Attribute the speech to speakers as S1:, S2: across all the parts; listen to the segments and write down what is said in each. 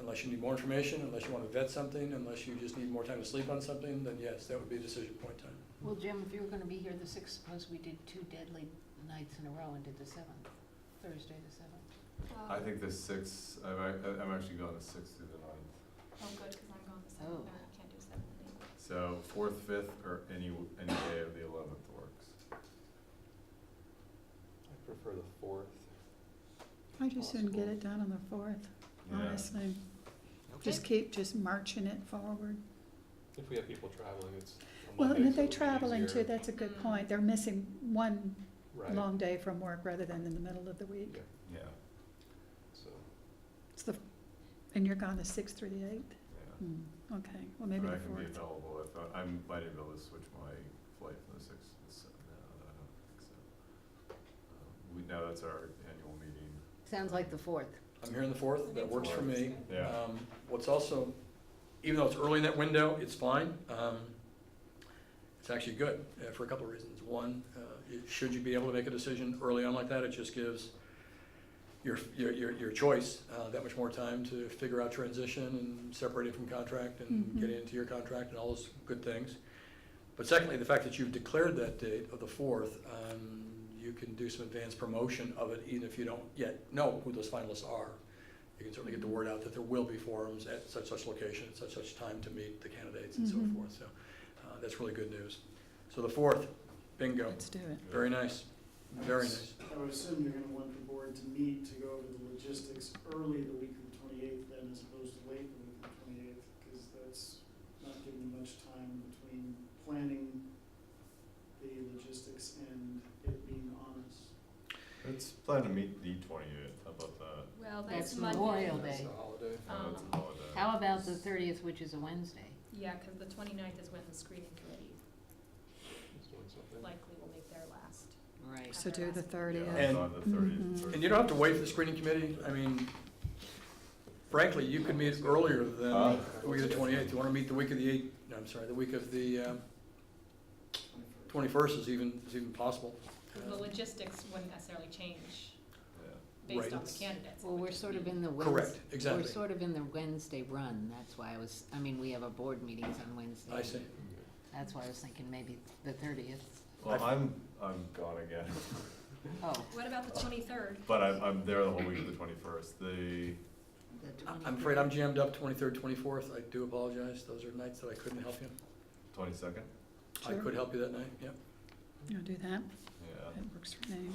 S1: Unless you need more information, unless you want to vet something, unless you just need more time to sleep on something, then yes, that would be a decision point in time.
S2: Well, Jim, if you were gonna be here the sixth, suppose we did two deadly nights in a row and did the seventh, Thursday the seventh.
S3: I think the sixth, I'm, ac- I'm actually going the sixth through the ninth.
S4: Oh, good, because I'm going the
S2: Oh.
S4: seventh, and I can't do seventh and eighth.
S3: So fourth, fifth, or any, any day of the eleventh works.
S5: I prefer the fourth.
S6: I just didn't get
S5: Possible.
S6: it done on the fourth, Oh,
S3: Yeah.
S6: honestly. Just keep just marching it forward.
S5: If we have people traveling, it's. on
S6: Well,
S5: Monday,
S6: and
S5: so
S6: they
S5: it'll be
S6: travel into,
S5: easier.
S6: that's a good
S4: Mm.
S6: point. They're missing one
S5: Right,
S6: long day from work rather than in the middle of the week.
S5: Yeah.
S3: Yeah,
S5: so,
S6: It's the, and you're gone the sixth through the eighth?
S3: yeah.
S6: Hmm, okay, well,
S3: I
S6: maybe
S3: mean, I
S6: the
S3: can be
S6: fourth.
S3: available if, I- I'm, might be able to switch my flight from the sixth to the seventh, no, I don't think so. Um, We, no, that's our annual meeting.
S2: Sounds like the fourth.
S1: I'm here on the fourth, that works for me.
S3: Yeah.
S1: Um, What's also, even though it's early in that window, it's fine. Um, It's actually good uh, for a couple of reasons. One, uh, it- should you be able to make a decision early on like that, it just gives your, your, your your choice uh, that much more time to figure out transition and separating from contract and
S6: Mhm.
S1: getting into your contract and all those good things. But secondly, the fact that you've declared that date of the fourth, um, you can do some advanced promotion of it, even if you don't yet know who those finalists are. You can certainly get the word out that there will be forums at such such location, at such such time to meet the candidates and so
S6: Mhm.
S1: forth. So uh, that's really good news. So the fourth, bingo.
S6: Let's do it.
S1: Very nice. Very nice.
S7: I would assume you're gonna want the board to meet to go over the logistics early the week of the twenty-eighth then as opposed to late the week of the twenty-eighth, because that's not giving you much time between planning the logistics and it being on us.
S3: Let's plan to meet the twenty-eighth, how about that?
S4: Well,
S2: that's
S4: that's
S2: That's Monday.
S4: Monday.
S2: Memorial
S5: that's
S2: Day.
S5: a holiday.
S3: No, it's a
S4: Um,
S3: holiday.
S2: How about the thirtieth, which is a Wednesday?
S4: Yeah, because the twenty-ninth is when the screening committee
S5: It's doing something.
S4: likely will make their last.
S2: Right.
S6: So do the
S3: Yeah,
S6: thirtieth.
S3: it's
S1: And-
S3: on the thirtieth.
S6: Mhm.
S1: And you don't have to wait for the screening committee. I mean, frankly, you could meet earlier than
S3: Uh.
S1: the week of the twenty-eighth. You want to meet the week of the eight, no, I'm sorry, the week of the uh, twenty-first is even, is even possible.
S4: The logistics wouldn't necessarily change
S1: Right.
S4: based on the candidates. it
S2: Well,
S4: would
S2: we're
S4: just
S2: sort of
S4: be-
S2: in the Wednesday.
S1: Correct,
S2: We're
S1: exactly.
S2: sort of in the Wednesday run, that's why I was, I mean, we have our board meetings on Wednesday.
S1: I see.
S2: That's why I was thinking maybe the thirtieth.
S3: Well, I'm, I'm gone again,
S2: Oh,
S4: What about the twenty-third?
S3: but I'm, I'm there the whole week of the twenty-first, the,
S2: the
S1: I-
S2: twenty.
S1: I'm afraid I'm jammed up twenty-third, twenty-fourth. I do apologize. Those are nights that I couldn't help you.
S3: Twenty-second?
S1: I
S6: Sure.
S1: could help you that night, yeah.
S6: You'll do that?
S3: Yeah.
S6: That works for me.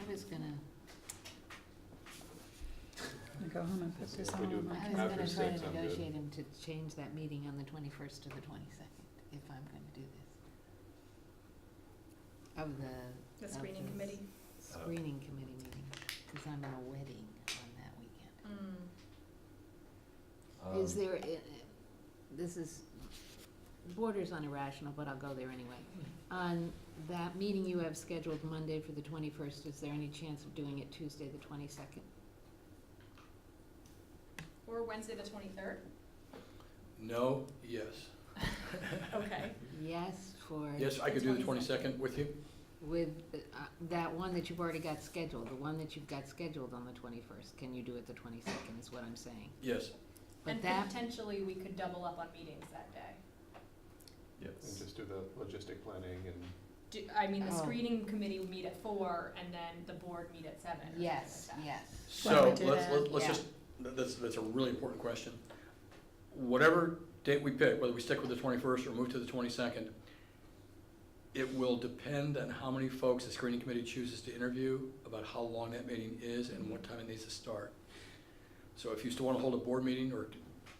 S2: I was gonna,
S6: I'm gonna go home and put
S5: So
S6: this
S5: if
S6: all
S5: we do
S6: on my
S2: I
S5: After
S2: was
S6: calendar.
S2: gonna try
S5: six,
S2: to
S5: I'm good.
S2: negotiate him to change that meeting on the twenty-first to the twenty-second, if I'm gonna do this.
S5: Uh,
S2: Of the
S4: The
S2: That
S4: screening
S2: is-
S4: committee?
S2: screening committee meeting, cause I'm in a wedding on that weekend.
S4: Mm.
S2: Is
S3: Um,
S2: there, i- i- this is, borders on irrational, but I'll go there anyway. On that meeting you have scheduled Monday for the twenty-first, is there any chance of doing it Tuesday, the twenty-second?
S4: Or Wednesday, the twenty-third?
S1: No, yes.
S4: Okay.
S2: Yes, for,
S1: Yes, I could do the
S4: 22nd.
S1: twenty-second with you.
S2: with, uh, that one that you've already got scheduled, the one that you've got scheduled on the twenty-first, can you do it the twenty-second, is what I'm saying.
S1: Yes,
S2: But
S4: And
S2: that,
S4: potentially, we could double up on meetings that day.
S5: And
S3: Yes.
S5: just do the logistic planning and
S4: Do, I mean, the
S2: Oh.
S4: screening committee would meet at four, and then the board meet at seven. or something like
S2: yes,
S4: that.
S2: yes.
S6: Why
S1: so
S6: don't we do
S1: let's, let's-
S6: that?
S1: let's
S2: Yeah.
S1: just, th- that's, that's a really important question. Whatever date we pick, whether we stick with the twenty-first or move to the twenty-second, it will depend on how many folks the screening committee chooses to interview, about how long that meeting is and what time it needs to start. So if you still want to hold a board meeting or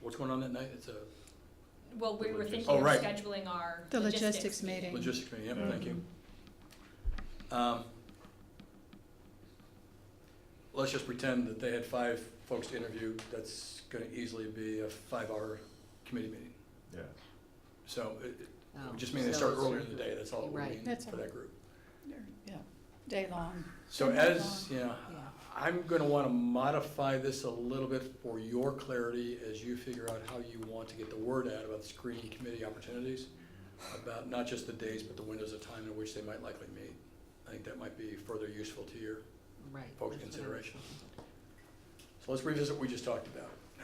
S1: what's going on that night, it's a
S4: Well, we
S3: The
S4: were
S3: logis-
S4: thinking
S1: Oh,
S4: of
S1: right.
S4: scheduling our
S6: The
S4: logistics
S6: logistics
S4: meeting.
S6: meeting.
S1: logistics meeting, yeah,
S3: Yeah.
S1: thank you. Um, Let's just pretend that they had five folks to interview, that's gonna easily be a five-hour committee meeting.
S3: Yeah.
S1: So it, it
S2: Oh,
S1: would just means they
S2: so
S1: start
S2: it's-
S1: earlier in the day, that's all it would
S2: Right.
S1: mean
S6: That's
S1: for
S6: all.
S1: that group.
S6: Yeah, day long.
S1: So
S6: Then
S1: as,
S6: move
S1: yeah,
S2: Yeah.
S1: I'm gonna wanna modify this a little bit for your clarity as you figure out how you want to get the word out about the screening committee opportunities, about not just the days, but the windows of time in which they might likely meet. I think that might be further useful to your
S2: Right.
S1: folks'
S2: that's what I was
S1: consideration.
S2: thinking.
S1: So let's revisit what we just talked about.